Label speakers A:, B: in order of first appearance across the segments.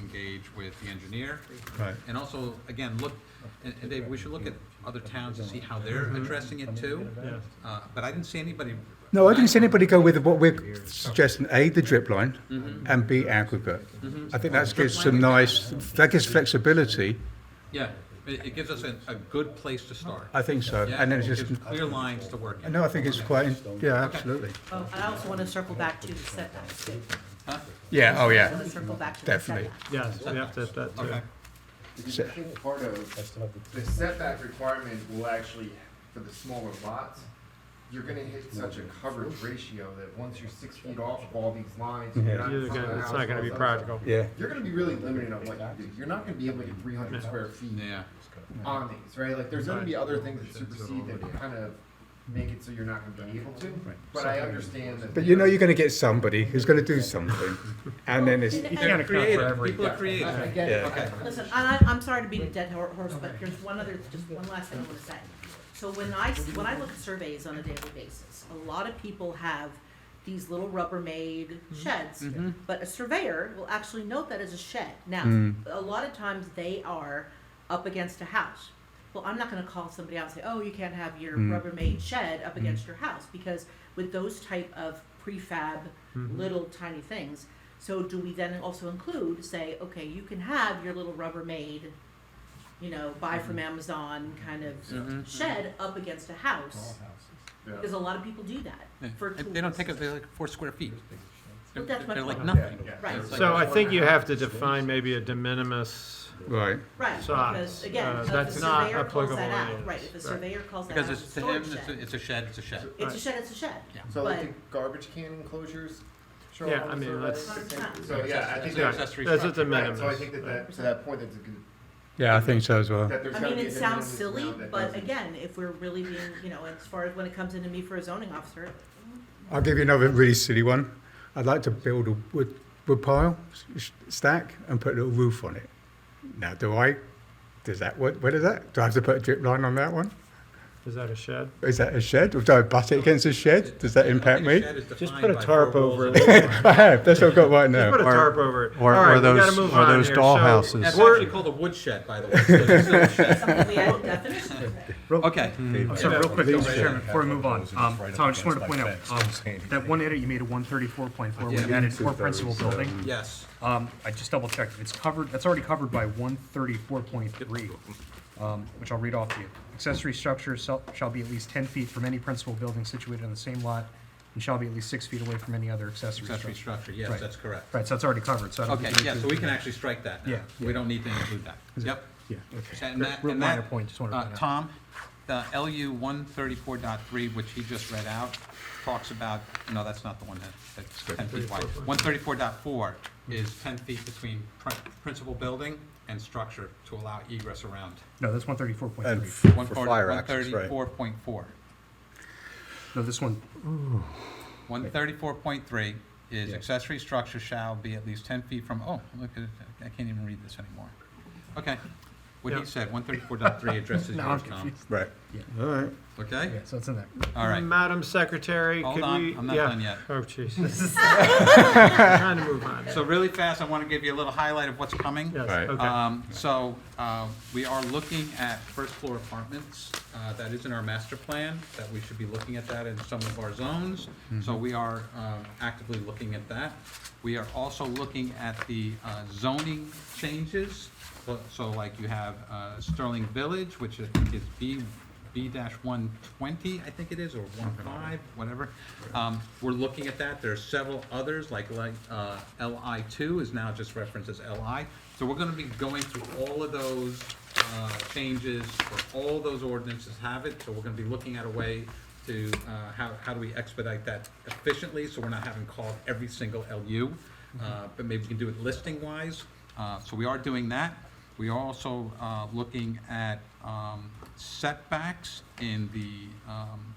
A: engage with the engineer.
B: Right.
A: And also, again, look, and and Dave, we should look at other towns to see how they're addressing it too.
C: Yeah.
A: Uh, But I didn't see anybody.
B: No, I didn't see anybody go with what we're suggesting, A, the drip line,
A: Mhm.
B: and B, aggregate.
A: Mhm.
B: I think that
A: Drip
B: gives
A: line
B: some
A: we got.
B: nice, that gives flexibility,
A: Yeah, it, it gives us a, a good place to start.
B: I think so.
A: Yeah,
B: And then
A: it
B: it's
A: gives
B: just,
A: clear lines to work in.
B: no, I think it's quite, yeah, absolutely.
D: Oh, and I also want to circle back to the setbacks. too.
A: Huh?
B: Yeah, oh,
D: I want
B: yeah.
D: to circle back to the
B: Definitely.
D: setbacks.
C: Yes, we have to, have that, too.
A: Okay,
E: Because I think part of the setback requirement will actually, for the smaller lots, you're gonna hit such a coverage ratio that once you're six feet off of all these lines, you're not. in
C: You're
E: front of
C: gonna-
E: the
C: it's
E: house,
C: not gonna
E: all
C: be
E: that
C: practical.
E: stuff.
B: Yeah.
E: You're gonna be really limited on what you do. You're not gonna be able to get three hundred square feet
A: yeah,
E: on these, right? Like, there's gonna be other things that supersede that kind of make it so you're not gonna be able to. But I understand that.
B: But you know
E: there's-
B: you're going to get somebody who's going to do something, and then it's,
D: And-
C: can't
D: and-
C: account for every.
A: people are creative.
E: I I get it.
B: Yeah.
D: Listen, I, I- I'm sorry to beat a dead hor- horse, but there's one other, just one last thing I want to say. So when I, s- when I look at surveys on a daily basis, a lot of people have these little Rubbermaid sheds.
B: Mm.
A: Mm-hmm.
D: But a surveyor will actually note that as a shed.
B: Mm.
D: Now, a lot of times they are up against a house. Well, I'm not gonna call somebody out and say, oh, you can't have your
B: Mm.
D: Rubbermaid shed up against your house, because with those type of prefab,
C: Mm-hmm.
D: little tiny things, so do we then also include, say, okay, you can have your little Rubbermaid, you know, buy from
A: Mm-hmm.
D: Amazon kind of shed up against a house?
E: Yeah.
D: Because a lot of people do that for
A: And They don't
D: tools.
A: take us, they're like four square feet. They're
D: Well, that's my
A: they're like
D: point.
A: nothing.
E: Yeah.
D: Right.
A: It's like-
C: So I think you have to define maybe a de minimis,
B: right.
D: Right,
C: Size,
D: because again,
C: uh,
D: if the
C: that's not
D: surveyor calls
C: applicable
D: that
C: to
D: out,
C: this,
D: right, if the
C: right.
D: surveyor calls that out
A: Because
D: as a
A: it's to him,
D: storage
A: it's a, it's a
D: shed,
A: shed, it's a shed.
D: it's a
C: Right.
D: shed, it's a shed.
E: So like
D: But-
E: the garbage can enclosures? show
C: Yeah,
E: up on
C: I
E: the
C: mean,
E: survey?
D: that's-
E: So, yeah, I
A: It's
E: think
A: an
C: Yeah.
E: that,
A: accessory
C: that's a
A: structure.
C: de
E: right,
C: minimis.
E: so I think that that, to that point, that's a good,
B: Yeah, I think so as well.
E: that there's
D: I
E: gotta
D: mean,
E: be. a
D: it
E: de
D: sounds
E: minimis
D: silly,
E: amount that
D: but
E: doesn't-
D: again, if we're really being, you know, as far as when it comes into me for a zoning officer,
B: I'll give you another really silly one. I'd like to build a wood, wood pile s- stack and put a little roof on it. Now, do I? Does that what? What is that? Do I have to put a drip line on that one?
C: is that a shed?
B: Is that a shed? Or do I butt it against a shed? Does that
A: I think
B: impact
A: a
B: me?
A: shed is
C: Just
A: defined
C: put a
A: by four
C: tarp
A: walls
C: over
A: and-
C: it.
B: I have. That's what I've got right
C: Just
B: now.
C: put a
F: Or-
C: tarp over it.
F: Or,
C: All right,
F: or
C: we gotta
F: those,
C: move
F: or
C: on
F: those
C: here. So-
A: That's
F: dollhouses.
A: actually called a wood shed, by the way. so it's still a shed.
D: something we add definition of.
A: Okay,
G: I'm sorry, real quick, though, Mr. Chairman, before we move on, um, Tom, I just wanted to point out, um, that one edit you made at one thirty-four point four,
A: Yeah.
G: we added for principal building.
A: yes.
G: Um, I just double checked, it's covered, that's already covered by one thirty-four point three, um, which I'll read off to you. Accessory structure shall, shall be at least ten feet from any principal building situated on the same lot, and shall be at least six feet away from any other accessory
A: Accessory
G: structure.
A: structure, yes,
G: Right.
A: that's correct.
G: Right, so that's already covered, so I don't
A: Okay,
G: think we need
A: yeah,
G: to-
A: so we can actually strike that now.
G: Yeah.
A: We don't need to include that. Yep.
G: Yeah, okay.
A: And that,
G: Real
A: and
G: minor
A: that,
G: point, just wanted to
A: uh,
G: point out.
A: Tom, the LU one thirty-four dot three, which he just read out, talks about, no, that's not the one that, that's ten feet wide. One thirty-four dot four is ten feet between pri- principal building and structure to allow egress around.
G: No, that's one thirty-four point
B: And
G: three.
B: f- for
A: One
B: fire access, right?
A: thirty-four point four.
G: No, this one,
A: One thirty-four point three is accessory structure shall be at least ten feet from, oh, look at it, I can't even read this anymore. Okay, what he
C: Yeah.
A: said, one thirty-four dot three addresses
G: now I'm
A: yours, Tom,
G: confused.
B: Right. All right.
A: okay?
G: Yeah, so it's in there.
A: All right,
C: Madam Secretary,
A: Hold
C: could
A: on,
C: we?
A: I'm not
C: yeah.
A: done yet.
C: Oh, Jesus. Trying to move on.
A: so really fast, I want to give you a little highlight of what's coming.
C: Yes,
B: Right.
C: okay.
A: Um, so, uh, we are looking at first floor apartments, uh, that is in our master plan, that we should be looking at that in some of our zones. So we are, uh, actively looking at that. We are also looking at the, uh, zoning changes. So- So like you have, uh, Sterling Village, which I think is B, B dash one twenty, I think it is, or one five, whatever. Um, we're looking at that, there are several others, like, like, uh, LI two is now just referenced as LI. So we're gonna be going through all of those, uh, changes, for all those ordinances have it, so we're gonna be looking at a way to, uh, how, how do we expedite that efficiently, so we're not having called every single LU. Uh, but maybe we can do it listing-wise, uh, so we are doing that. We are also uh, looking at um, setbacks in the um,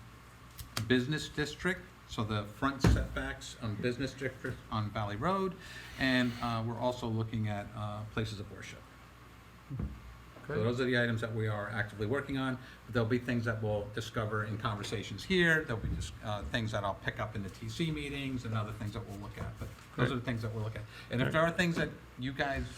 A: business district, so the front setbacks on business district on Valley Road, and uh, we're also looking at uh, places of worship. So
C: Okay.
A: those are the items that we are actively working on. There'll be things that we'll discover in conversations here, there'll be just uh, things that I'll pick up in the TC meetings and other things that we'll look at, but those are the things that we'll look at. And if there are things that you guys